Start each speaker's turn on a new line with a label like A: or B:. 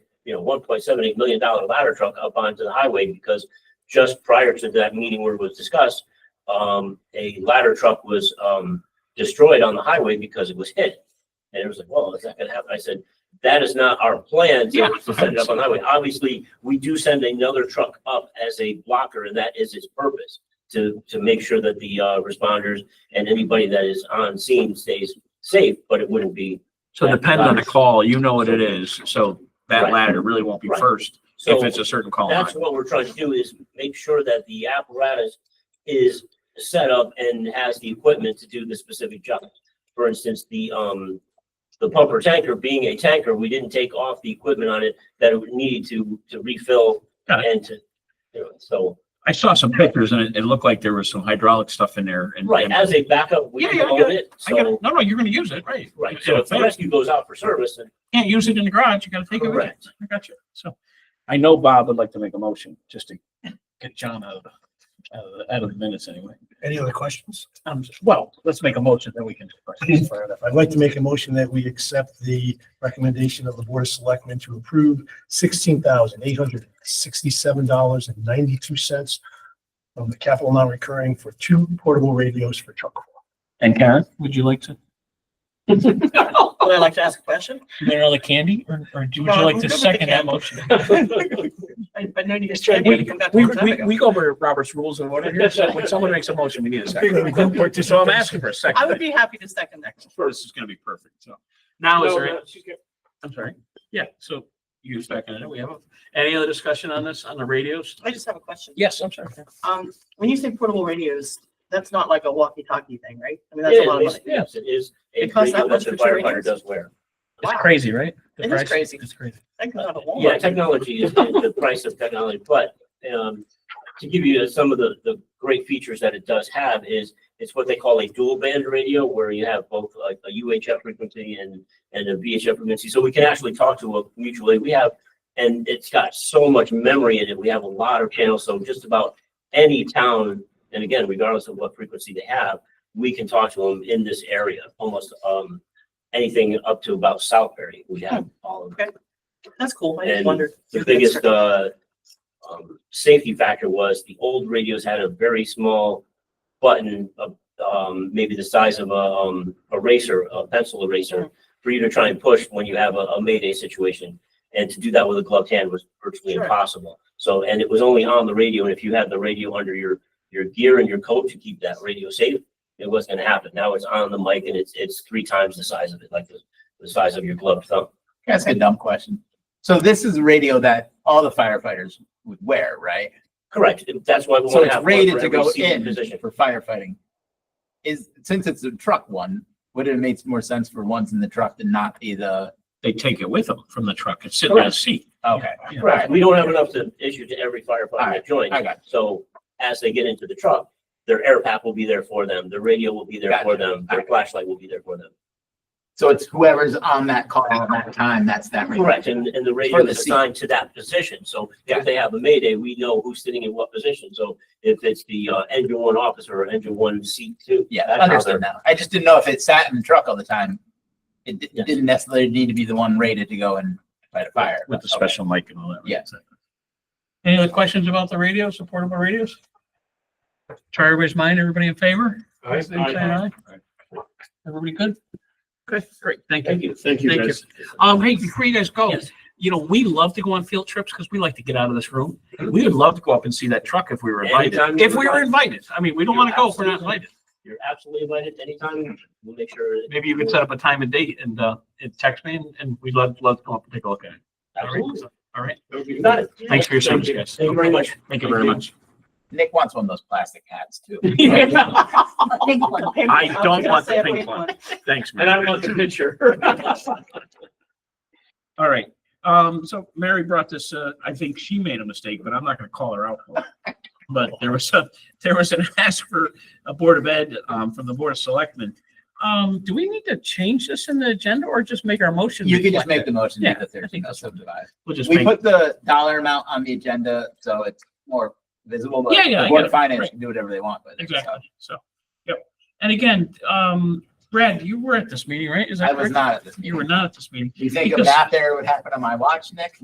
A: you know, one point seven eight million dollar ladder truck up onto the highway because just prior to that meeting where it was discussed, um, a ladder truck was, um, destroyed on the highway because it was hit. And it was like, well, is that gonna happen? I said, that is not our plan
B: Yeah.
A: to send it up on the highway. Obviously, we do send another truck up as a blocker and that is its purpose to, to make sure that the, uh, responders and anybody that is on scene stays safe, but it wouldn't be.
B: So depends on the call, you know what it is, so that
A: Right.
B: ladder really won't be
A: Right.
B: first
A: So-
B: if it's a certain call. line.
A: That's what we're trying to do is make sure that the apparatus is set up and has the equipment to do the specific job. For instance, the, um, the pumper tanker being a tanker, we didn't take off the equipment on it that it would need to, to refill
B: Got
A: and to, you know, so,
B: I saw some pictures and it, it looked like there was some hydraulic stuff in there and.
A: right,
B: and-
A: as a backup, we
B: Yeah, yeah, I
A: own
B: got
A: it,
B: I gotta-
A: so,
B: no, no, you're gonna use it, right?
A: right,
B: Yeah,
A: so if the
B: fair.
A: rescue goes out for service, then
B: Can't use it in the garage, you gotta take it with you.
A: Correct.
B: I got you, so. I know Bob would like to make a motion, just to get John out of, the- out of, the- out of the minutes anyway.
C: Any other questions?
B: Um, well, let's make a motion, then we can. discuss further.
C: I'd like to make a motion that we accept the recommendation of the Board of Selectmen to approve sixteen thousand eight hundred sixty-seven dollars and ninety-two cents from the capital non-recurring for two portable radios for truck.
B: And Karen, would you like to?
D: Would I like to ask a question?
B: You want another candy or, or do- would you
D: No,
B: like
D: I'm
B: to
D: good with the
B: second that
D: candy.
B: motion?
D: I, I know you guys
B: Sure,
D: tried to come back.
B: We,
D: one time
B: we,
D: ago.
B: we go over Robert's rules and whatever here, so when someone makes a motion, we need a second. So I'm asking for a
D: I would
B: second.
D: be happy to second that.
B: Sure, This is gonna be perfect, so. Now is there, I'm sorry, yeah, so you seconded it, we have, a- any other discussion on this, on the radios?
D: I just have a question.
B: Yes, I'm sorry.
D: Um, when you say portable radios, that's not like a walkie-talkie thing, right? I mean, that's a lot of
A: it is,
D: money.
A: yes, it is. a
D: It costs that
A: radio
D: much
A: the
D: for two
A: firefighter
D: radios?
A: does wear.
B: It's crazy, right? The
D: It is
B: price?
D: crazy.
B: It's crazy.
D: That goes out of
A: Yeah,
D: Walmart.
A: technology is is the price of technology, but um, to give you some of the, the great features that it does have is it's what they call a dual band radio where you have both a, a UHF frequency and, and a VHF frequency. So we can actually talk to a mutually. We have, and it's got so much memory in it. We have a lot of channels. So just about any town, and again, regardless of what frequency they have, we can talk to them in this area, almost um, anything up to about Southbury. We have all of
D: That's cool. I just
A: And
D: wondered.
A: the biggest uh um safety factor was the old radios had a very small button of um maybe the size of a um eraser, a pencil eraser for you to try and push when you have a, a mayday situation. And to do that with a gloved hand was virtually
D: Sure.
A: impossible. So and it was only on the radio. And if you had the radio under your your gear and your coat to keep that radio safe, it wasn't gonna happen. Now it's on the mic and it's it's three times the size of it, like the the size of your gloved thumb.
E: That's a dumb question. So this is a radio that all the firefighters would wear, right?
A: Correct. That's why we
E: So
A: want to
E: it's
A: have. one
E: rated
A: for
E: to
A: every
E: go
A: seated
E: in
A: Position.
E: for firefighting. Is, since it's a truck one, would it make more sense for ones in the truck to not be the,
B: They take it with them from the truck and sit in a seat.
E: okay,
B: Yeah.
A: Correct. We don't have enough to issue to every firefighter that
E: Alright,
A: joins.
E: I got it.
A: So as they get into the truck, their air pack will be there for them, their radio will be there for
E: Gotcha.
A: them, their
E: Alright.
A: flashlight will be there for them.
E: So it's whoever's on that call at that time, that's that. radio.
A: Correct. And, and the radio
E: For the
A: is
E: seat.
A: assigned to that position. So
E: Yeah.
A: if they have a mayday, we know who's sitting in what position. So if it's the uh, engine one officer or engine one seat two.
E: Yeah,
A: that's how they're-
E: understood now. I just didn't know if it sat in the truck all the time. It di-
A: Yes.
E: didn't necessarily need to be the one rated to go and fight a fire.
B: With the
E: Okay.
B: special mic and all that. right?
E: Yeah.
B: Any other questions about the radios, supportable radios? Try everybody's mind, everybody in favor? Same sign, aye? Everybody good? Okay, great, thank you.
A: Thank you.
B: Thank you, guys. Um, hey, before you guys go,
A: Yes.
B: you know, we love to go on field trips because we like to get out of this room. We would love to go up and see that truck if we were
A: Anytime
B: invited.
A: you
B: If we were
A: would.
B: invited, I mean, we don't want to go if we're not
A: Absolutely.
B: invited.
A: You're absolutely invited anytime. We'll make sure. that-
B: Maybe you could set up a time and date and, uh, and text me and- and we'd love, love to come up and take a look at it.
A: Absolutely.
B: All right,
A: You got it.
B: thanks for your service, guys.
A: Thank you very much.
B: Thank you very much.
E: Nick wants one of those plastic hats too.
D: Pink one, pink
B: I
D: one. was
B: don't
D: gonna
B: want the
D: say a
B: pink one. Thanks, man.
A: And I don't want the picture.
B: All right, um, so Mary brought this, uh, I think she made a mistake, but I'm not gonna call her out for it. But there was a, there was an ask for a Board of Ed, um, from the Board of Selectmen. Um, do we need to change this in the agenda or just make our motion?
E: You can just
B: reflect
E: make
B: that?
E: the motion
B: Yeah,
E: that
B: I
E: there's
B: think
E: no
B: that's what-
E: subdivision.
B: We'll just
E: We
B: make,
E: put the dollar amount on the agenda, so it's more visible, but
B: Yeah, yeah,
E: the
B: I
E: Board
B: get
E: of
B: it.
E: Finance
B: Right.
E: can do whatever they want, but.
B: exactly, so, yep. And again, um, Brad, you were at this meeting, right? Is that
E: I was
B: correct?
E: not at this
B: You were
E: meeting.
B: not at this meeting.
E: You think a
B: Because-
E: math error would happen on my watch, Nick?